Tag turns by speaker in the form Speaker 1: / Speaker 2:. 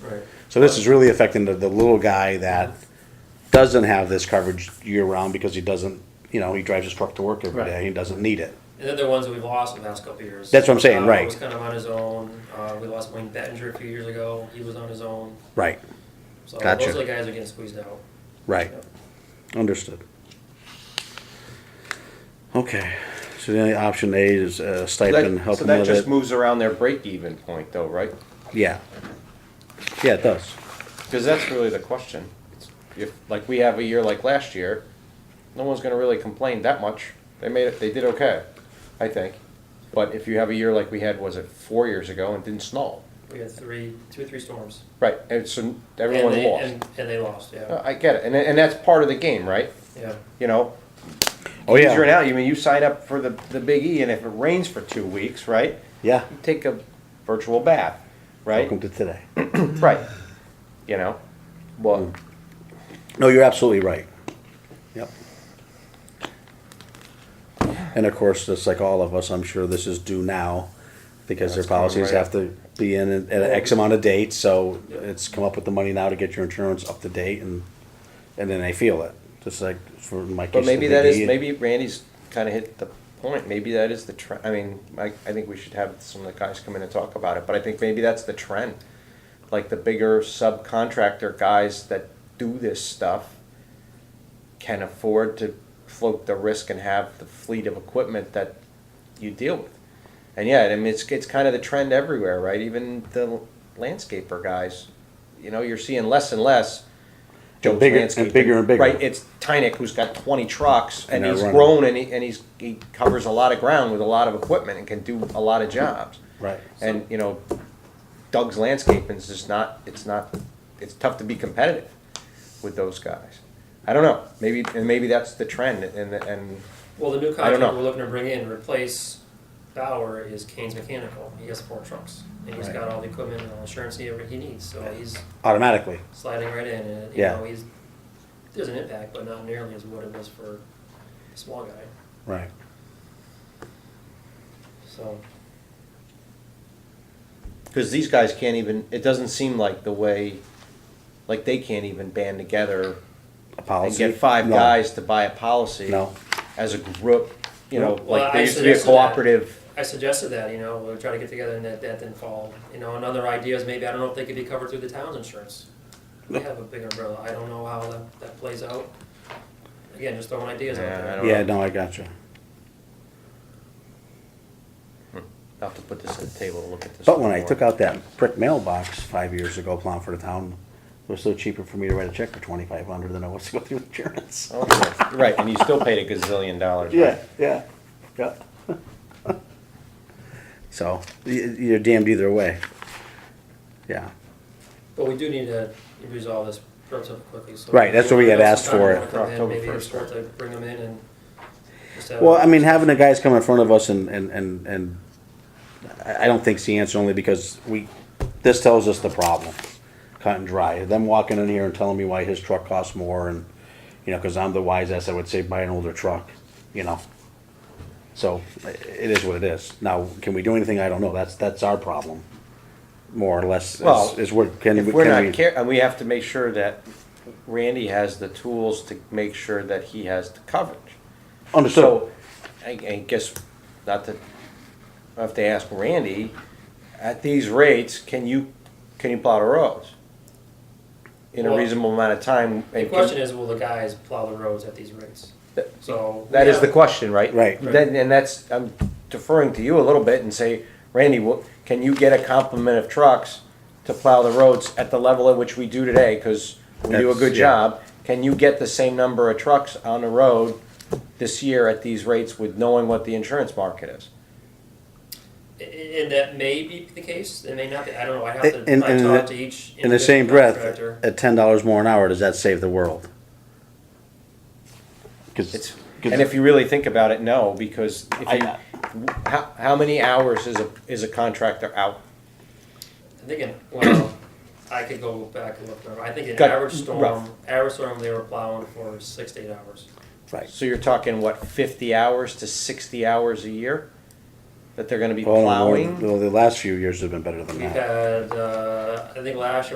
Speaker 1: Right.
Speaker 2: So this is really affecting the, the little guy that doesn't have this coverage year round because he doesn't, you know, he drives his truck to work every
Speaker 1: Right.
Speaker 2: day, he doesn't need it.
Speaker 3: And then there are ones that we've lost in the past couple of years.
Speaker 2: That's what I'm saying,
Speaker 3: Uh,
Speaker 2: right.
Speaker 3: Was kind of on his own. Uh, we lost Wayne Bettinger a few years ago. He was on his own.
Speaker 2: Right,
Speaker 3: So
Speaker 2: Gotcha.
Speaker 3: those are the guys that are getting squeezed out.
Speaker 2: right, understood. Okay, so the only option A is uh, stipend,
Speaker 1: That-
Speaker 2: help
Speaker 1: So
Speaker 2: him
Speaker 1: that
Speaker 2: with
Speaker 1: just
Speaker 2: it,
Speaker 1: moves around their break-even point though, right?
Speaker 2: yeah. Yeah, it does,
Speaker 1: Because that's really the question. It's- If, like, we have a year like last year, no one's gonna really complain that much. They made it, they did okay, I think. But if you have a year like we had, was it four years ago and didn't snow?
Speaker 3: We had three, two or three storms.
Speaker 1: Right, and so
Speaker 3: And
Speaker 1: everyone
Speaker 3: they-
Speaker 1: lost.
Speaker 3: And, and they lost, yeah.
Speaker 1: Uh, I get it, and, and that's part of the game, right?
Speaker 3: Yeah.
Speaker 1: You know?
Speaker 2: oh yeah.
Speaker 1: Easier now, you mean, you sign up for the, the Big E and if it rains for two weeks, right?
Speaker 2: Yeah,
Speaker 1: You Take a virtual bath, right?
Speaker 2: welcome to today.
Speaker 1: Right. You know? Well,
Speaker 2: No, you're absolutely right. Yep. And of course, just like all of us, I'm sure this is due now because their
Speaker 1: That's coming
Speaker 2: policies
Speaker 1: right
Speaker 2: have to be in at at X amount of dates, so it's come up with the money now to get your insurance up to date and, and then they feel it, just like for my case.
Speaker 1: but maybe
Speaker 2: the
Speaker 1: that is,
Speaker 2: DD.
Speaker 1: maybe Randy's kind of hit the point. Maybe that is the trend. I mean, I, I think we should have some of the guys come in and talk about it, but I think maybe that's the trend. Like the bigger subcontractor guys that do this stuff can afford to float the risk and have the fleet of equipment that you deal with. And yeah, I mean, it's, it's kind of the trend everywhere, right? Even the landscaper guys, you know, you're seeing less and less. Joe's
Speaker 2: bigger- and
Speaker 1: Landscaping.
Speaker 2: bigger and bigger.
Speaker 1: Right, it's Tynick who's got twenty trucks and
Speaker 2: And they're
Speaker 1: he's
Speaker 2: running.
Speaker 1: grown and he, and he's, he covers a lot of ground with a lot of equipment and can do a lot of jobs.
Speaker 2: Right.
Speaker 1: And, you know, Doug's landscaping is just not, it's not, it's tough to be competitive with those guys. I don't know, maybe, and maybe that's the trend and, and,
Speaker 3: Well, the new
Speaker 1: I don't
Speaker 3: contract
Speaker 1: know.
Speaker 3: we're looking to bring in, replace Bauer is Kane's Mechanical. He has four trucks. And he's
Speaker 2: Right.
Speaker 3: got all the equipment and all the insurance he ever, he needs, so he's
Speaker 2: Automatically,
Speaker 3: sliding right in and, you
Speaker 2: Yeah.
Speaker 3: know, he's, there's an impact, but not nearly as what it was for a small guy,
Speaker 2: right.
Speaker 3: so.
Speaker 1: cause these guys can't even, it doesn't seem like the way, like they can't even band together
Speaker 2: A
Speaker 1: and
Speaker 2: policy.
Speaker 1: get five
Speaker 2: No.
Speaker 1: guys to buy a policy.
Speaker 2: No.
Speaker 1: As a group, you know,
Speaker 2: No.
Speaker 3: Well,
Speaker 1: like there
Speaker 3: I
Speaker 1: used to be a
Speaker 3: suggested that.
Speaker 1: cooperative.
Speaker 3: I suggested that, you know, we'll try to get together and that, that didn't fall. You know, another idea is maybe, I don't know if they could be covered through the town's insurance. We have a big umbrella, I don't know how that, that plays out. Again, just throwing ideas out
Speaker 1: Yeah, I
Speaker 3: there.
Speaker 1: don't-
Speaker 2: Yeah, no, I gotcha.
Speaker 1: I'll have to put this at the table to look at this.
Speaker 2: But when I
Speaker 1: more.
Speaker 2: took out that brick mailbox five years ago, plowing for the town, it was still cheaper for me to write a check for twenty-five hundred than it was to go through insurance.
Speaker 1: Okay. Right, and you still paid a gazillion dollars. right?
Speaker 2: Yeah, yeah, yeah. So, y- you're damned either way. Yeah,
Speaker 3: But we do need to resolve this relatively quickly, so.
Speaker 2: Right, that's what we had asked for it.
Speaker 3: Come in,
Speaker 1: October
Speaker 3: Maybe it's
Speaker 1: 1st,
Speaker 3: worth to bring them in and just have.
Speaker 2: well, I mean, having the guys come in front of us and, and, and, and I, I don't think's the answer only because we, this tells us the problem, cut and dry. Them walking in here and telling me why his truck costs more and, you know, cause I'm the wise ass, I would say buy an older truck, you know? So, i- it is what it is. Now, can we do anything? I don't know. That's, that's our problem, more or less,
Speaker 1: Well,
Speaker 2: is, is what, can,
Speaker 1: If
Speaker 2: we-
Speaker 1: we're
Speaker 2: can we?
Speaker 1: not care, and we have to make sure that Randy has the tools to make sure that he has the coverage.
Speaker 2: Understood.
Speaker 1: So, I, I guess, not to, I have to ask Randy, at these rates, can you, can you plow the roads? In a
Speaker 3: Well,
Speaker 1: reasonable amount of time?
Speaker 3: The question is, will the guys plow the roads at these rates? So.
Speaker 1: That is
Speaker 3: yeah.
Speaker 1: the question, right?
Speaker 2: Right.
Speaker 1: Then, and that's, I'm deferring to you a little bit and say, Randy, wha- can you get a complement of trucks to plow the roads at the level at which we do today? Because we do a
Speaker 2: That's-
Speaker 1: good
Speaker 2: yeah.
Speaker 1: job. Can you get the same number of trucks on the road this year at these rates with knowing what the insurance market is?
Speaker 3: I- And that may be the case, it may not be, I don't know, I have
Speaker 2: And- and-
Speaker 3: to, I
Speaker 2: and
Speaker 3: talk
Speaker 2: the-
Speaker 3: to each.
Speaker 2: In the same breath,
Speaker 3: contractor.
Speaker 2: at ten dollars more an hour, does that save the world? Cause,
Speaker 1: It's,
Speaker 2: 'cause-
Speaker 1: and if you really think about it, no, because if
Speaker 2: I-
Speaker 1: you, how, how many hours is a, is a contractor out?
Speaker 3: I'm thinking, well, I could go back and look, I think an
Speaker 1: Got-
Speaker 3: average storm,
Speaker 1: rough.
Speaker 3: average storm, they were plowing for six to eight hours.
Speaker 2: right,
Speaker 1: So you're talking, what, fifty hours to sixty hours a year? That they're gonna be
Speaker 2: well, the more-
Speaker 1: plowing?
Speaker 2: well, the last few years have been better than
Speaker 3: We
Speaker 2: that.
Speaker 3: had, uh, I think last year